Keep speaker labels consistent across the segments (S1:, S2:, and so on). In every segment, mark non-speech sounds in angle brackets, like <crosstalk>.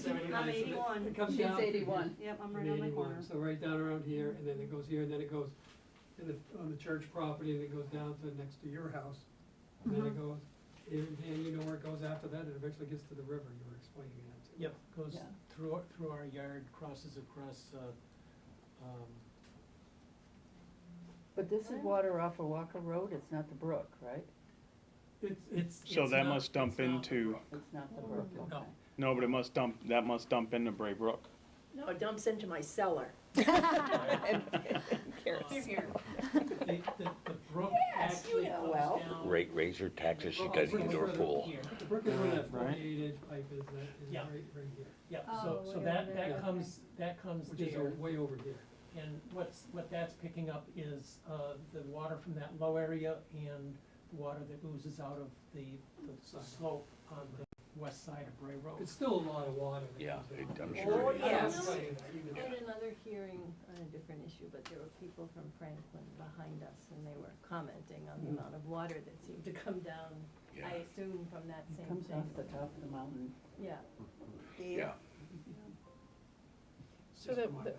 S1: I'm
S2: guys, and it-
S1: eighty-one.
S2: It comes
S3: She's
S2: down.
S3: 81.
S1: Yep, I'm
S2: I'm
S1: right on the
S2: 81,
S1: corner.
S2: So right down around here, and then it goes here, and then it goes in the, on the church property, and it goes down to next to your house. And then it goes, and, and you know where it goes after that, it eventually gets to the river, you were explaining that to.
S4: Yep, goes
S3: Yeah.
S4: through, our- through our yard, crosses across, uh, um,
S3: But this is water off of Walker Road, it's not the brook, right?
S2: It's, it's,
S4: it's.
S5: So
S4: it's
S5: that
S4: not-
S5: must dump
S4: it's not
S5: <laughs>
S4: a
S5: into-
S4: brook.
S3: It's not
S6: Oh,
S3: the brook,
S1: No.
S3: okay.
S5: No, but it must dump, that must dump into Bray Brook.
S7: No, it dumps into my cellar.
S4: Here, Um, The, the, the brook actually
S7: know
S4: comes
S7: well.
S4: down-
S8: Ra- raise your taxes, she got an
S4: Brook
S8: indoor
S4: further
S8: pool.
S4: here.
S2: the brook is where that
S5: Right.
S2: forty-eight inch pipe is, that is
S4: Yeah.
S2: right, right here,
S4: Yeah,
S6: Oh,
S4: so, so
S6: way
S4: that,
S6: over there,
S4: that
S6: okay.
S4: comes, that comes
S2: which is
S4: there,
S2: o- way over here.
S4: and what's, what that's picking up is, uh, the water from that low area and the water that oozes out of the, the
S2: Side.
S4: slope on the west side of Bray Road.
S2: It's still a lot of water. that
S8: Yeah,
S2: comes out.
S8: it- I'm sure
S7: Oh, it is.
S2: I
S7: yes.
S2: don't know. You know.
S6: At another hearing on a different issue, but there were people from Franklin behind us, and they were commenting on the
S2: Hmm.
S6: amount of water that seemed to come down,
S8: Yeah.
S6: I assume from that
S3: It
S6: same
S3: comes off the
S6: thing.
S3: top of the mountain.
S6: Yeah,
S8: Yeah,
S9: So that, that-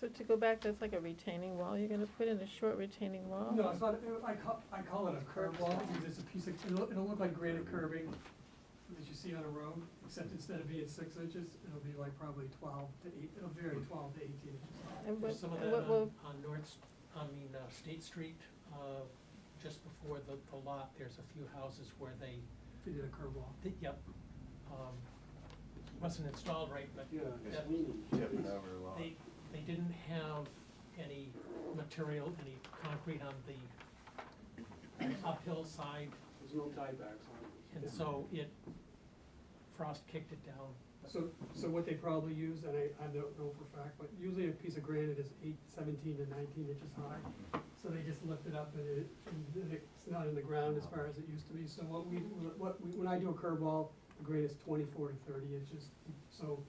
S9: so to go back, that's like a retaining wall, you're gonna put in a short retaining wall?
S2: No, it's not, it- I call, I call it a curb wall, because it's a piece of, it'll, it'll look like granite curbing that you see on a road, except instead of being six inches, it'll be like probably twelve to eight, it'll vary twelve to eighteen inches.
S9: And what,
S4: There's some of
S9: and
S4: that
S2: uh,
S9: what will,
S4: on, on North, S- I mean, uh, State Street, uh, just before the, the lot, there's a few houses where they,
S2: If you did a curb wall.
S4: they- yep, um, wasn't installed right, but
S10: Yeah,
S4: that- they, they didn't have any material, any concrete on the uphill side,
S10: There's no tiebacks on it.
S4: and so it, frost kicked it down.
S2: So, so what they probably use, and I, I don't know for a fact, but usually a piece of granite is eight, seventeen to nineteen inches high. So they just lift it up and it, and it's not in the ground as far as it used to be. So what we, what we, when I do a curb wall, the grade is twenty-four to thirty inches. So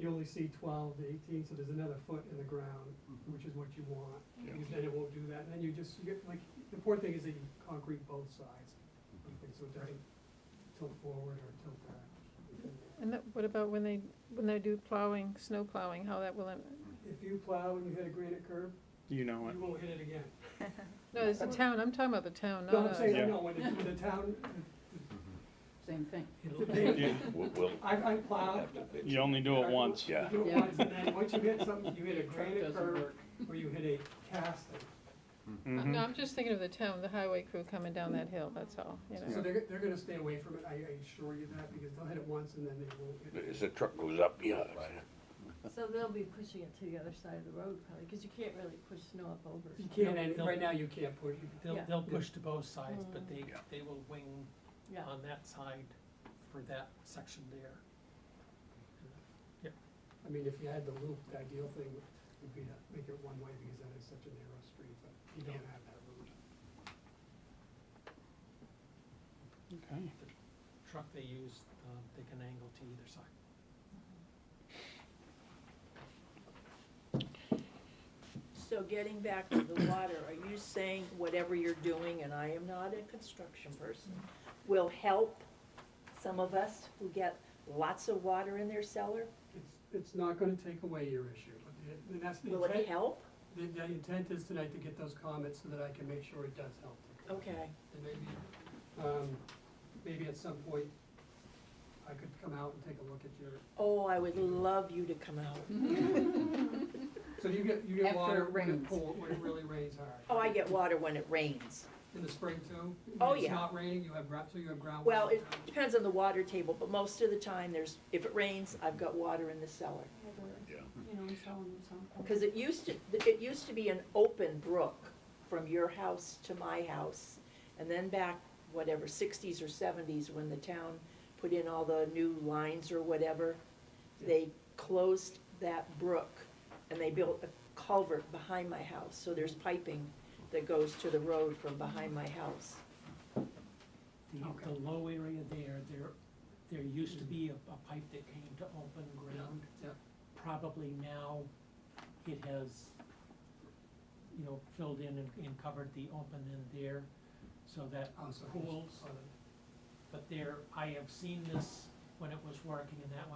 S2: you only see twelve to eighteen, so there's another foot in the ground, which is what you want.
S8: Yeah.
S2: Because then it won't do that. And then you just, you get, like, the important thing is that you concrete both sides. So it doesn't tilt forward or tilt back.
S9: and that, what about when they, when they do plowing, snow plowing, how that will, im-
S2: If you plow and you hit a granite curb,
S5: You
S2: you
S5: know it.
S2: won't hit it again.
S9: no, it's the town, I'm talking about the town,
S2: No, I'm
S9: not
S2: saying,
S9: us.
S2: I
S5: Yeah.
S2: know, when the- the town,
S3: Same thing.
S4: It'll-
S2: they,
S5: You-
S8: we'll, we'll
S2: I, I plowed.
S8: have to bitch.
S5: You only do it once.
S8: Yeah.
S2: You do it
S3: Yeah.
S2: once, and then once you hit something, you hit a granite
S3: doesn't
S2: curb, or you hit a casting.
S9: Uh,
S5: Mhm.
S9: No, I'm just thinking of the town, the highway crew coming down that hill, that's all, you
S2: So
S9: know.
S2: they're, they're gonna stay away from it, I I assure you that, because they'll hit it once and then they won't hit it.
S8: As the truck goes up, yeah,
S6: so they'll be pushing it to the other side of the road probably, because you can't really push snow up over.
S2: You can't, and right now you can't push it.
S4: They'll,
S6: Yeah. Mm-hmm.
S4: they'll push to both sides, but they,
S8: Yeah.
S4: they will wing
S6: Yeah.
S4: on that side for that section there.
S2: I mean, if you had the loop, the ideal thing would be to make it one way, because that is such a narrow street, but you don't have that route.
S5: Okay.
S4: Truck they use, um, they can angle to either side.
S7: So getting back to the water, are you saying whatever you're doing, and I am not a construction person, will help some of us who get lots of water in their cellar?
S2: It's, it's not gonna take away your issue, but the- and that's the
S7: Will it
S2: intent,
S7: help?
S2: the, the intent is tonight to get those comments so that I can make sure it does help.
S7: Okay.
S2: And maybe, um, maybe at some point, I could come out and take a look at your,
S7: Oh, I would love you to come out.
S2: so you get, you get
S3: After
S2: water
S3: it
S2: when it
S3: rains.
S2: pool, when it really rains hard.
S7: <laughs> Oh, I get water when it rains.
S2: In the spring too? When
S7: Oh,
S2: It's
S7: yeah.
S2: not raining, you have, gra- so you have groundwater.
S7: Well, it depends on the water table, but most of the time, there's, if it rains, I've got water in the cellar.
S8: yeah.
S1: You know, installing them something.
S7: Because it used to, it used to be an open brook from your house to my house. And then back, whatever, sixties or seventies, when the town put in all the new lines or whatever, they closed that brook and they built a culvert behind my house. So there's piping that goes to the road from behind my house.
S4: The,
S2: Okay.
S4: the low area there, there, there used to be a, a pipe that came to open ground.
S2: Yeah.
S4: Probably now it has, you know, filled in and, and covered the open end there, so that
S2: Oh, so-
S4: pools, but there, I have seen this when it was working in that one.